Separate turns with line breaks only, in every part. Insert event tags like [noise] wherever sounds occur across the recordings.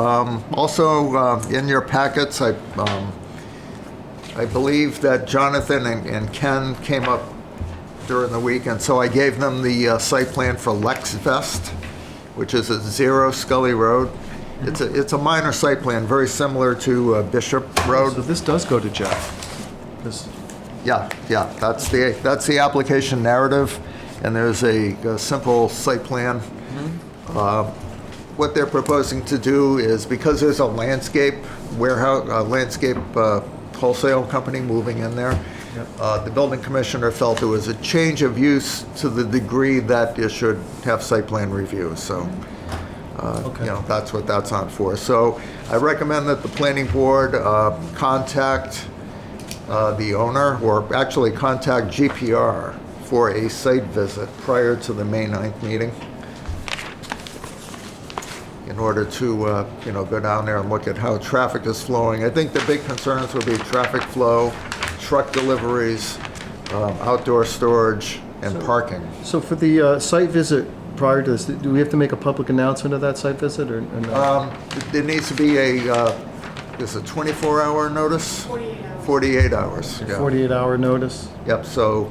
Um, Also, uh, in your packets, I, um, I believe that Jonathan and- and Ken came up during the week, and so I gave them the uh, site plan for Lex Vest, which is at Zero Scully Road. It's a, it's a minor site plan, very similar to uh, Bishop Road.
So this does go to Jeff. This,
Yeah, yeah, that's the, that's the application narrative, and there's a a simple site plan. Uh, What they're proposing to do is, because there's a landscape warehouse, uh, landscape uh, wholesale company moving in there, uh, the building commissioner felt it was a change of use to the degree that it should have site plan review, so you
okay.
know, that's what that's on for. So I recommend that the planning board uh, contact uh, the owner, or actually contact GPR for a site visit prior to the May 9th meeting in order to, uh, you know, go down there and look at how traffic is flowing. I think the big concerns will be traffic flow, truck deliveries, um, outdoor storage, and parking.
So for the uh, site visit prior to this, do we have to make a public announcement of that site visit or or no?
Um, There needs to be a, uh, is it 24-hour notice?
48 hours.
48 hours, yeah.
48 hour notice?
Yep, so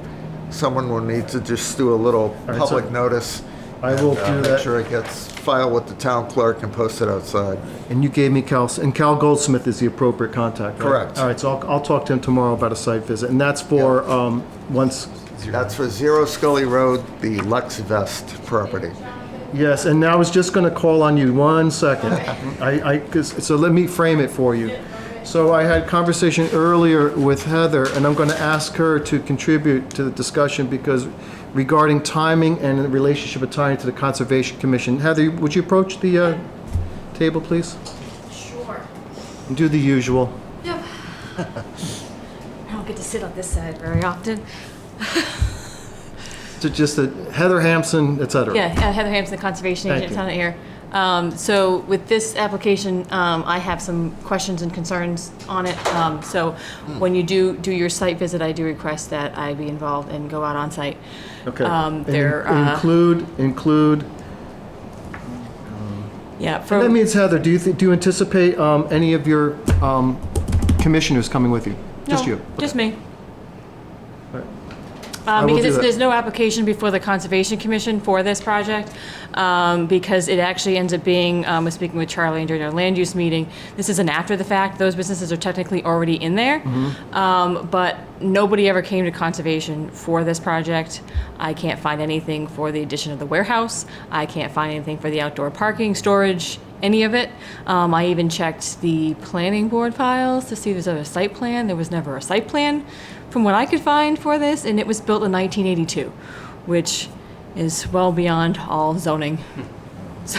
someone will need to just do a little
right, so-
public notice.
I
and,
will
uh,
do
Make
that.
sure it gets filed with the town clerk and posted outside.
And you gave me Cal, and Cal Goldsmith is the appropriate contact, right?
Correct.
All right, so I'll, I'll talk to him tomorrow about a site visit, and that's for, um, once,
That's for Zero Scully Road, the Lex Vest property.
yes, and now I was just gonna call on you, one second. I, I, 'cause- so let me frame it for you. So I had conversation earlier with Heather, and I'm gonna ask her to contribute to the discussion, because regarding timing and the relationship of timing to the Conservation Commission. Heather, would you approach the, uh, table, please?
Sure.
And do the usual.
Yep. I don't get to sit on this side very often.
So just the Heather Hampson, et cetera.
Yeah, uh, Heather Hampson, the conservation
Thank
agent,
you.
town of Air. Um, So with this application, um, I have some questions and concerns on it. Um, So when you do, do your site visit, I do request that I be involved and go out on site.
Okay.
Um,
And
There,
in-
uh,
Include, include,
uh, yeah,
that
from,
means Heather, do you, thi- do you anticipate um, any of your um, commissioners coming with you? Just
No,
you?
Just me.
Alright. I
Um,
will do
Because it's-
that.
there's no application before the Conservation Commission for this project, um, because it actually ends up being, um, I was speaking with Charlie during our land use meeting, this is an after the fact, those businesses are technically already in there,
Mm-hmm.
Um, but nobody ever came to Conservation for this project. I can't find anything for the addition of the warehouse, I can't find anything for the outdoor parking, storage, any of it. Um, I even checked the planning board files to see if there's a site plan. There was never a site plan from what I could find for this, and it was built in 1982, which is well beyond all zoning. [laughs] So,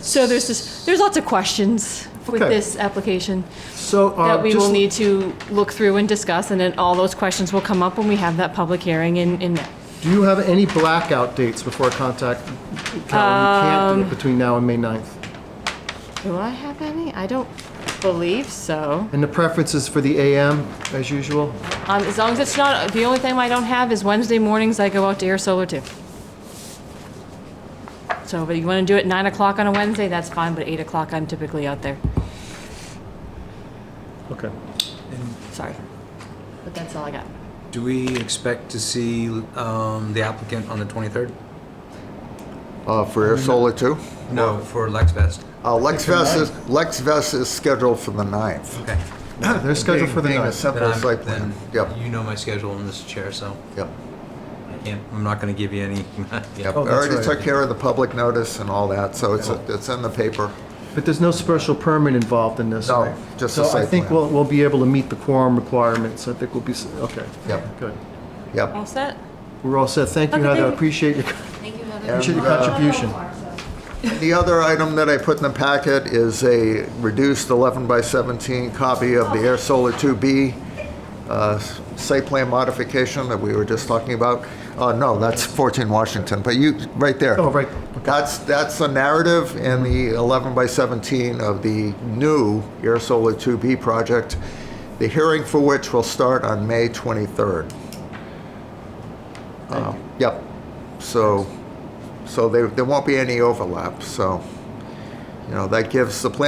so there's just, there's lots of questions with
Okay.
this application
So, uh,
that we will
just-
need to look through and discuss, and then all those questions will come up when we have that public hearing in, in May.
do you have any blackout dates before I contact Cal?
Um.
You can't do it between now and May 9th.
Do I have any? I don't believe so.
And the preference is for the AM, as usual?
Um, as long as it's not, the only thing I don't have is Wednesday mornings, I go out to air solar too. So, but you wanna do it nine o'clock on a Wednesday, that's fine, but eight o'clock, I'm typically out there,
Okay.
sorry. But that's all I got.
Do we expect to see um, the applicant on the 23rd?
Uh, For Air Solar 2?
No. For Lexvest?
Uh, Lex Vest is, Lex Vest is scheduled for the 9th.
Okay.
Ah, They're scheduled for the
Being-
9th.
Being a simple
Then I'm-
site plan. Yep,
Then you know my schedule in this chair, so
yep,
I can't, I'm not going to give you any. [laughs] yeah.
yep. I
Oh, that's
already
right.
took care of the public notice and all that, so it's, it's in the paper.
But there's no special permit involved in this,
No,
right?
just a
So I
site
think
plan.
we'll, we'll be able to meet the quorum requirements. I think we'll be, s- okay.
Yep.
Good.
Yep.
All set?
We're all set. Thank you,
Okay,
Heather. I
thank you.
appreciate your,
Thank you,
appreciate your
uh,
contribution.
The other item that I put in the packet is a reduced 11 by 17 copy of the Air Solar 2B uh, site plan modification that we were just talking about. Uh, No, that's 14 Washington, but you, right there.
Oh, right.
That's, that's the narrative in the 11 by 17 of the new Air Solar 2B project, the hearing for which will start on May 23rd. Uh, Yep. So, so there, there won't be any overlap, so, you know, that gives the planning